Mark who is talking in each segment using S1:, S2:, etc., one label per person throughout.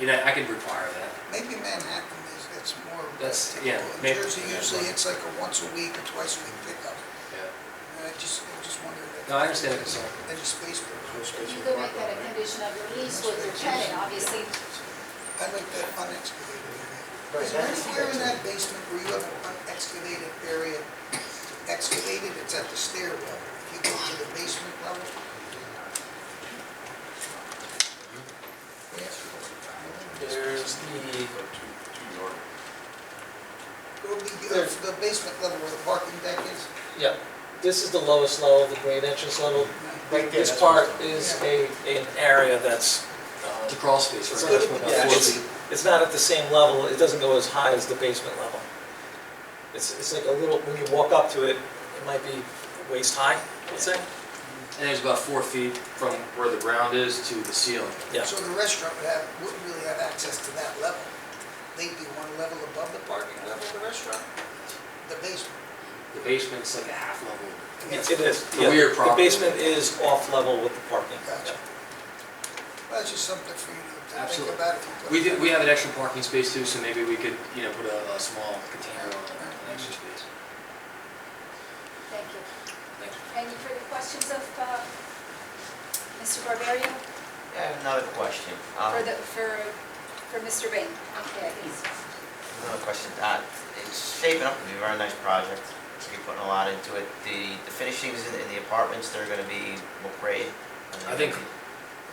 S1: You know, I can require that.
S2: Maybe Manhattan is, that's more.
S1: That's-
S2: typical.
S1: yeah,
S2: In
S1: may-
S2: Jersey, usually it's like a once a week or twice a week pickup.
S1: Yeah.
S2: And I just, I just wonder. if-
S1: No, I understand the concern.
S2: Any space for it.
S3: You could make that a condition of your lease with your tenant, obviously,
S2: I like that unexcavated area.
S4: Right,
S2: Is there
S4: that's-
S2: anywhere in that basement where you have an unexcavated area? Excavated, it's at the stairwell. If you go to the basement level.
S4: There's the,
S2: It'll be the the basement level where the parking deck is.
S4: yeah, this is the lowest level, the grade entrance level.
S5: Right there,
S4: This
S5: that's
S4: part
S5: what
S4: is a, an area that's,
S1: The
S4: uh,
S1: crawl space,
S4: it's
S1: right?
S4: not,
S1: That's what about
S4: yeah,
S1: four
S4: it's,
S1: feet.
S4: it's not at the same level, it doesn't go as high as the basement level. It's, it's like a little, when you walk up to it, it might be waist high, let's say,
S1: And there's about four feet from where the ground is to the ceiling.
S4: yeah.
S2: So the restaurant would have, wouldn't really have access to that level. They'd be one level above the parking level of the restaurant, the basement.
S1: The basement's like a half level.
S4: It it is,
S1: The
S4: yeah.
S1: weird
S4: The
S1: property.
S4: basement is off level with the parking.
S2: Gotcha. Well, That's just something for you to think
S1: Absolutely.
S2: about. if you put-
S1: We do, we have an extra parking space too, so maybe we could, you know, put a, a small container on an extra space.
S3: thank you.
S1: Thank you.
S3: Any further questions of, uh, Mr. Barberio,
S5: I have another question. Um,
S3: for the, for, for Mr. Bain? Okay, he's,
S5: Another question. Uh, It's shaping up to be a very nice project. So you're putting a lot into it. The the finishings in in the apartments, they're going to be what grade?
S1: I think-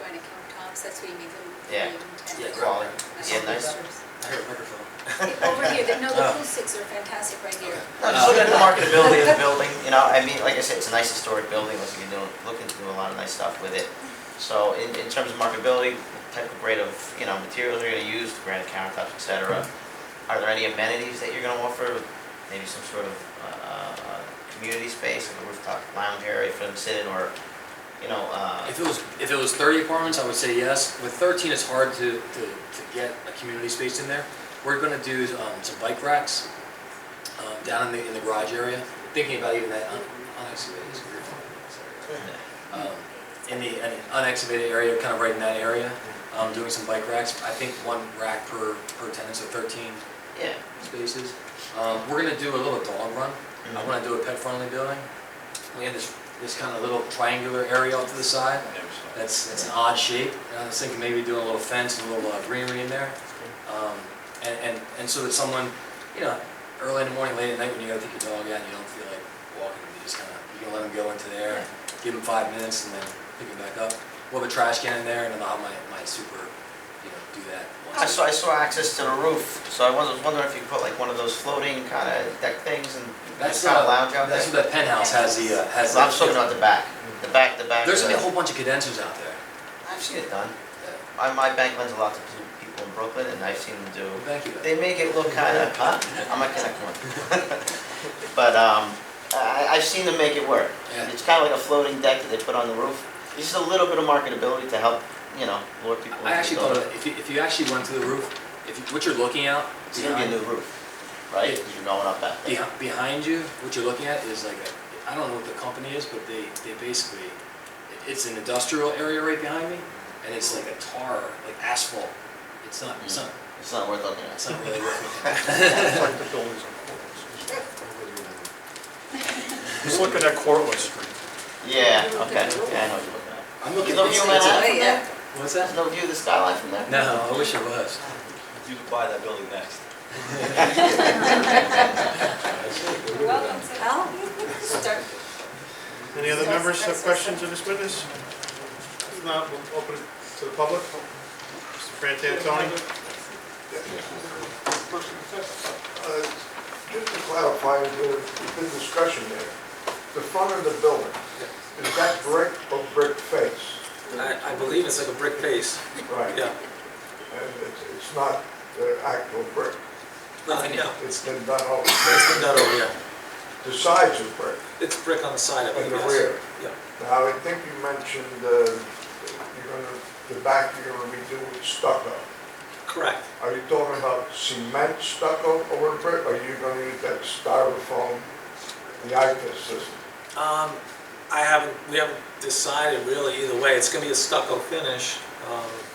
S3: going to count comps, that's what you make them.
S5: Yeah.
S1: Yeah,
S5: Quality. Yeah, nice. Oh.
S1: I heard a microphone.
S3: Over here, the- no, the acoustics are fantastic right here.
S5: No, Just looking at the marketability of the building, you know, I mean, like I said, it's a nice historic building. Looks like you're doing, looking to do a lot of nice stuff with it. So in in terms of marketability, what type of grade of, you know, materials you're going to use, granite countertops, et cetera. Are there any amenities that you're going to offer? Maybe some sort of uh, uh, community space, like a rooftop lounge area for them to sit in or, you know, uh,
S1: If it was, if it was thirty apartments, I would say yes. With thirteen, it's hard to, to, to get a community space in there. We're gonna do, um, some bike racks, um, down in the, in the garage area. Thinking about even that un- unexcavated, it's a weird one. Sorry. Um, in the, in the unexcavated area, kind of right in that area, um, doing some bike racks. I think one rack per, per tenant, so thirteen
S5: yeah.
S1: spaces. Um, we're gonna do a little dog run. I wanna do a pet-friendly building. We have this, this kind of little triangular area off to the side. That's, that's an odd shape. And I was thinking maybe doing a little fence and a little uh, greenery in there. Um, and, and, and so that someone, you know, early in the morning, late at night, when you gotta take your dog out and you don't feel like walking, you just kinda, you can let them go into there, give them five minutes and then pick them back up. We'll have a trash can in there and then I'll have my, my super, you know, do that. once
S5: I saw, I saw access to the roof, so I was was wondering if you could put like one of those floating kind of deck things and
S1: That's
S5: kind
S1: uh,
S5: of lounge out there.
S1: That's what that penthouse has the, uh, has.
S5: Well, I'm just
S1: the-
S5: looking at the back, the back, the back.
S1: There's
S5: uh,
S1: gonna be a whole bunch of condensers out there.
S5: I've seen it done. My, my bank lends a lot to people in Brooklyn, and I've seen them do
S1: Thank you.
S5: They make it look kind of, huh? I'm not gonna come But, um, I, I've seen them make it work.
S1: Yeah.
S5: It's kind of like a floating deck that they put on the roof. It's Just a little bit of marketability to help, you know, lure people.
S1: I
S5: into
S1: actually
S5: the
S1: thought,
S5: building.
S1: of- if you, if you actually went to the roof, if, you- what you're looking out
S5: It's gonna be a
S1: behind,
S5: new roof, right? 'Cause you're going up that. thing.
S1: behi- behind you, what you're looking at is like a, I don't know what the company is, but they, they basically, it's an industrial area right behind me, and it's like a tar, like asphalt. It's not, it's not,
S5: It's not worth looking
S1: it's
S5: at.
S1: not really worth it.
S6: Like the buildings on Cortlandt. He's looking at Cortlandt Street.
S5: Yeah, okay, yeah, I know what you're looking at.
S1: I'm looking.
S5: There's no
S1: it's-
S5: view of
S1: it's a-
S5: Manhattan from
S3: yeah.
S5: there?
S1: What's
S5: There's
S1: that?
S5: no view of the skyline from there?
S1: No, I wish I was.
S7: You could buy that building next.
S3: You're welcome to. Al, start.
S6: Any other members have questions of this witness? If not, we'll open it to the public. Mr. Frantantoni?
S8: Uh, Just to clarify, there's been discussion there. The front of the building, is that brick or brick face?
S4: I, I believe it's like a brick face,
S8: Right.
S4: yeah. Uh,
S8: And it's, it's not the actual brick.
S4: No, I know.
S8: It's been done all,
S4: It's been done over, yeah.
S8: the sides are brick
S4: It's brick on the side, I believe,
S8: in the
S4: yes.
S8: rear.
S4: Yeah.
S8: Now, I think you mentioned, uh, you're gonna, the back you're gonna redo with stucco.
S4: Correct.
S8: Are you talking about cement stucco over brick, or are you gonna use that styrofoam, the IPS system?
S4: Um, I haven't, we haven't decided really either way. It's gonna be a stucco finish. Um,